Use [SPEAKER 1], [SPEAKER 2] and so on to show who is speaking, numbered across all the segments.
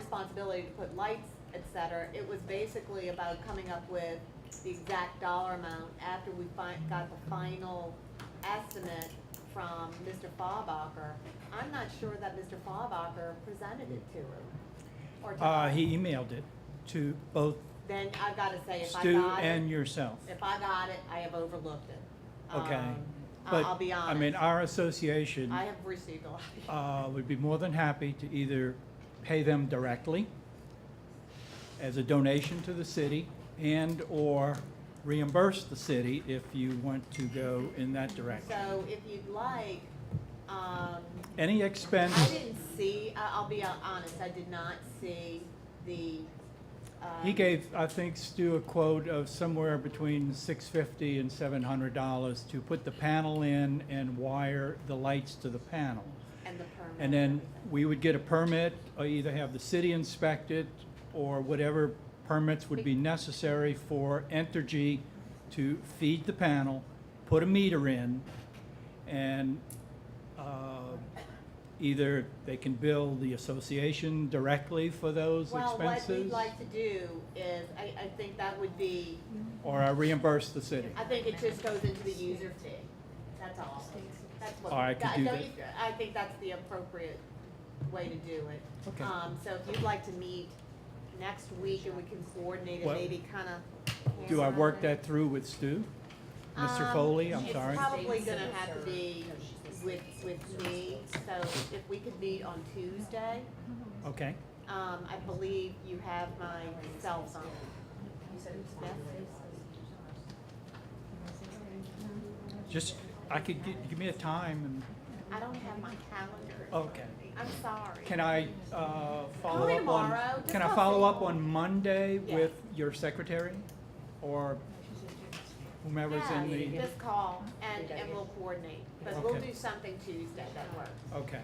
[SPEAKER 1] responsibility to put lights, et cetera. It was basically about coming up with the exact dollar amount after we fi- got the final estimate from Mr. Faubacker. I'm not sure that Mr. Faubacker presented it to her or to
[SPEAKER 2] Uh,
[SPEAKER 1] us.
[SPEAKER 2] he emailed it to both
[SPEAKER 1] Then I've gotta say, if I
[SPEAKER 2] Stu
[SPEAKER 1] got
[SPEAKER 2] and
[SPEAKER 1] it,
[SPEAKER 2] yourself.
[SPEAKER 1] if I got it, I have overlooked it.
[SPEAKER 2] Okay,
[SPEAKER 1] Um, I-
[SPEAKER 2] But,
[SPEAKER 1] I'll be honest.
[SPEAKER 2] I mean, our association,
[SPEAKER 1] I have received a lot of emails.
[SPEAKER 2] uh, would be more than happy to either pay them directly as a donation to the city and/or reimburse the city if you want to go in that direction.
[SPEAKER 1] So if you'd like, um,
[SPEAKER 2] Any
[SPEAKER 1] I
[SPEAKER 2] expense,
[SPEAKER 1] didn't see, I- I'll be honest, I did not see the, uh.
[SPEAKER 2] he gave, I think, Stu a quote of somewhere between six fifty and seven hundred dollars to put the panel in and wire the lights to the panel.
[SPEAKER 1] And the permit.
[SPEAKER 2] And then
[SPEAKER 1] everything.
[SPEAKER 2] we would get a permit, or either have the city inspect it, or whatever permits would be necessary for Entergy to feed the panel, put a meter in, and uh, either they can bill the association directly for those
[SPEAKER 1] Well, what we'd
[SPEAKER 2] expenses,
[SPEAKER 1] like to do is, I, I think that would be,
[SPEAKER 2] or I reimburse the city.
[SPEAKER 1] I think it just goes into the user fee. That's all. That's what.
[SPEAKER 2] All right, I could do
[SPEAKER 1] don't
[SPEAKER 2] that.
[SPEAKER 1] you- I think that's the appropriate way to do it.
[SPEAKER 2] Okay.
[SPEAKER 1] Um, so if you'd like to meet next week and we can coordinate it,
[SPEAKER 2] What-
[SPEAKER 1] maybe kinda.
[SPEAKER 2] Do I work that through with Stu? Mr.
[SPEAKER 1] Um,
[SPEAKER 2] Foley, I'm sorry.
[SPEAKER 1] It's probably gonna have to be with, with me, so if we could meet on Tuesday,
[SPEAKER 2] Okay,
[SPEAKER 1] um, I believe you have my cell phone. Yes?
[SPEAKER 2] just, I could, gi- give me a time
[SPEAKER 1] I don't have my calendar.
[SPEAKER 2] and, okay.
[SPEAKER 1] I'm sorry.
[SPEAKER 2] Oh. Can I uh, follow
[SPEAKER 1] Call me
[SPEAKER 2] up on?
[SPEAKER 1] tomorrow. Just
[SPEAKER 2] Can I
[SPEAKER 1] call
[SPEAKER 2] follow
[SPEAKER 1] me.
[SPEAKER 2] up on Monday
[SPEAKER 1] Yeah.
[SPEAKER 2] with your secretary or whomever's in
[SPEAKER 1] Yeah,
[SPEAKER 2] the?
[SPEAKER 1] just call and, and we'll coordinate, but we'll
[SPEAKER 2] Okay.
[SPEAKER 1] do something Tuesday that works,
[SPEAKER 2] Okay,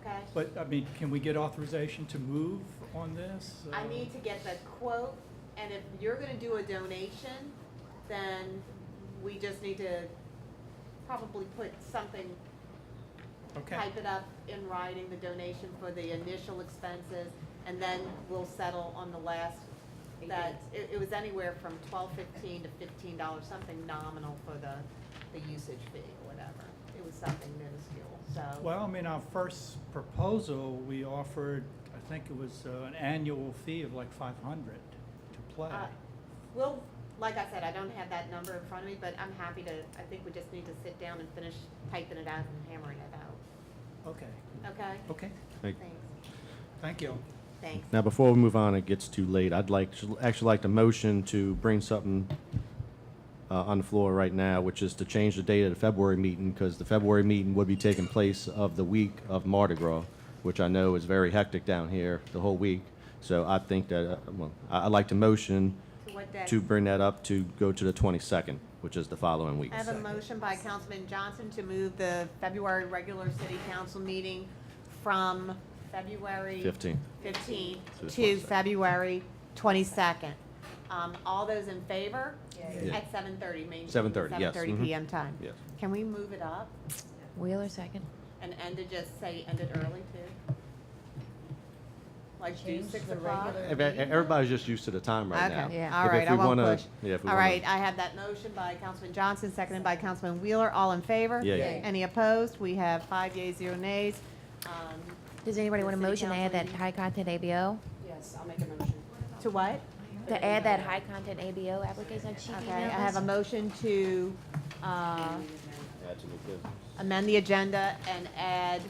[SPEAKER 1] okay?
[SPEAKER 2] but I mean, can we get authorization to move on this?
[SPEAKER 1] I
[SPEAKER 2] Uh,
[SPEAKER 1] need to get the quote, and if you're gonna do a donation, then we just need to probably put something
[SPEAKER 2] Okay,
[SPEAKER 1] type it up in writing, the donation for the initial expenses, and then we'll settle on the last, that, it, it was anywhere from twelve fifteen to fifteen dollars, something nominal for the, the usage fee or whatever. It was something minuscule, so.
[SPEAKER 2] well, I mean, our first proposal, we offered, I think it was uh, an annual fee of like five hundred to play.
[SPEAKER 1] Uh, We'll, like I said, I don't have that number in front of me, but I'm happy to, I think we just need to sit down and finish typing it out and hammering it
[SPEAKER 2] Okay,
[SPEAKER 1] out, okay?
[SPEAKER 2] okay,
[SPEAKER 3] Thank-
[SPEAKER 1] Thanks,
[SPEAKER 2] thank you.
[SPEAKER 1] thanks.
[SPEAKER 3] Now, before we move on, it gets too late. I'd like, actually like to motion to bring something uh, on the floor right now, which is to change the date of the February meeting, because the February meeting would be taking place of the week of Mardi Gras, which I know is very hectic down here the whole week. So I think that, uh, well, I- I'd like to motion
[SPEAKER 1] To what day?
[SPEAKER 3] to bring that up to go to the 22nd, which is the following week.
[SPEAKER 1] I have a motion by Councilman Johnson to move the February regular city council meeting from February.
[SPEAKER 3] 15th.
[SPEAKER 1] 15th
[SPEAKER 3] To the
[SPEAKER 1] to
[SPEAKER 3] 22nd.
[SPEAKER 1] February 22nd. Um, All those in favor?
[SPEAKER 3] Yeah.
[SPEAKER 1] At 7:30, Main.
[SPEAKER 3] 7:30, yes,
[SPEAKER 1] 7:30
[SPEAKER 3] mhm.
[SPEAKER 1] PM time.
[SPEAKER 3] Yes.
[SPEAKER 1] Can we move it up
[SPEAKER 4] Wheeler second.
[SPEAKER 1] and end it, just say end it early too? Like do
[SPEAKER 5] Change
[SPEAKER 1] 6
[SPEAKER 5] the
[SPEAKER 1] o'clock?
[SPEAKER 5] regular-
[SPEAKER 3] Ev- Everybody's just used to the time right now.
[SPEAKER 1] Okay,
[SPEAKER 4] Yeah.
[SPEAKER 1] all
[SPEAKER 3] If-
[SPEAKER 1] right,
[SPEAKER 3] if
[SPEAKER 1] I
[SPEAKER 3] we
[SPEAKER 1] won't
[SPEAKER 3] wanna-
[SPEAKER 1] push.
[SPEAKER 3] Yeah, if we
[SPEAKER 1] All
[SPEAKER 3] wanna-
[SPEAKER 1] right, I have that motion by Councilman Johnson, seconded by Councilman Wheeler, all in favor?
[SPEAKER 3] Yeah, yeah.
[SPEAKER 5] Yay.
[SPEAKER 1] Any opposed? We have five yeas, zero nays. Um,
[SPEAKER 4] Does anybody
[SPEAKER 1] The
[SPEAKER 4] want a
[SPEAKER 1] city
[SPEAKER 4] motion to add that
[SPEAKER 1] council
[SPEAKER 4] high content ABO?
[SPEAKER 5] Yes, I'll make a motion.
[SPEAKER 1] To what?
[SPEAKER 4] To add that high content ABO application that she
[SPEAKER 1] Okay,
[SPEAKER 4] emailed
[SPEAKER 1] I have a
[SPEAKER 4] us?
[SPEAKER 1] motion to uh,
[SPEAKER 3] That's a new business.
[SPEAKER 1] amend the agenda and add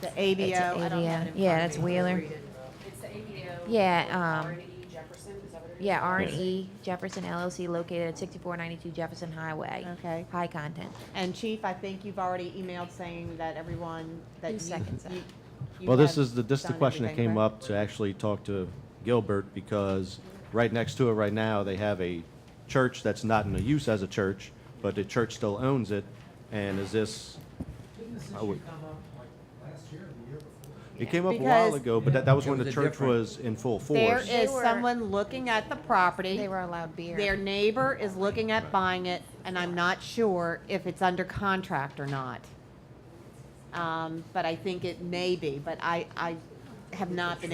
[SPEAKER 1] the ABO. I don't have it in
[SPEAKER 4] ABO. Yeah,
[SPEAKER 1] front of
[SPEAKER 4] that's
[SPEAKER 1] me.
[SPEAKER 4] Wheeler.
[SPEAKER 1] Read it.
[SPEAKER 5] It's the ABO.
[SPEAKER 4] Yeah, um,
[SPEAKER 5] R and E Jefferson, is that what it is?
[SPEAKER 4] Yeah, R and E Jefferson LLC located at sixty-four ninety-two Jefferson Highway.
[SPEAKER 1] Okay.
[SPEAKER 4] High content.
[SPEAKER 1] And Chief, I think you've already emailed saying that everyone, that
[SPEAKER 4] Who
[SPEAKER 1] you.
[SPEAKER 4] seconds
[SPEAKER 1] you-
[SPEAKER 4] that?
[SPEAKER 1] you
[SPEAKER 3] Well, this
[SPEAKER 1] have
[SPEAKER 3] is the, this is the
[SPEAKER 1] done
[SPEAKER 3] question that
[SPEAKER 1] everything,
[SPEAKER 3] came
[SPEAKER 1] right?
[SPEAKER 3] up to actually talk to Gilbert, because right next to it right now, they have a church that's not in the use as a church, but the church still owns it, and is this,
[SPEAKER 6] Didn't this
[SPEAKER 3] I
[SPEAKER 6] issue
[SPEAKER 3] would-
[SPEAKER 6] come up like last year or the year before?
[SPEAKER 3] it came up a while
[SPEAKER 1] Because-
[SPEAKER 3] ago, but that, that was
[SPEAKER 6] It
[SPEAKER 3] when the
[SPEAKER 6] was a
[SPEAKER 3] church
[SPEAKER 6] different-
[SPEAKER 3] was in full
[SPEAKER 1] There
[SPEAKER 3] force.
[SPEAKER 1] is
[SPEAKER 4] They were-
[SPEAKER 1] someone looking at the property.
[SPEAKER 4] They were allowed beer.
[SPEAKER 1] Their neighbor is looking at buying it, and I'm not sure if it's under contract or not. Um, But I think it may be, but I, I have not been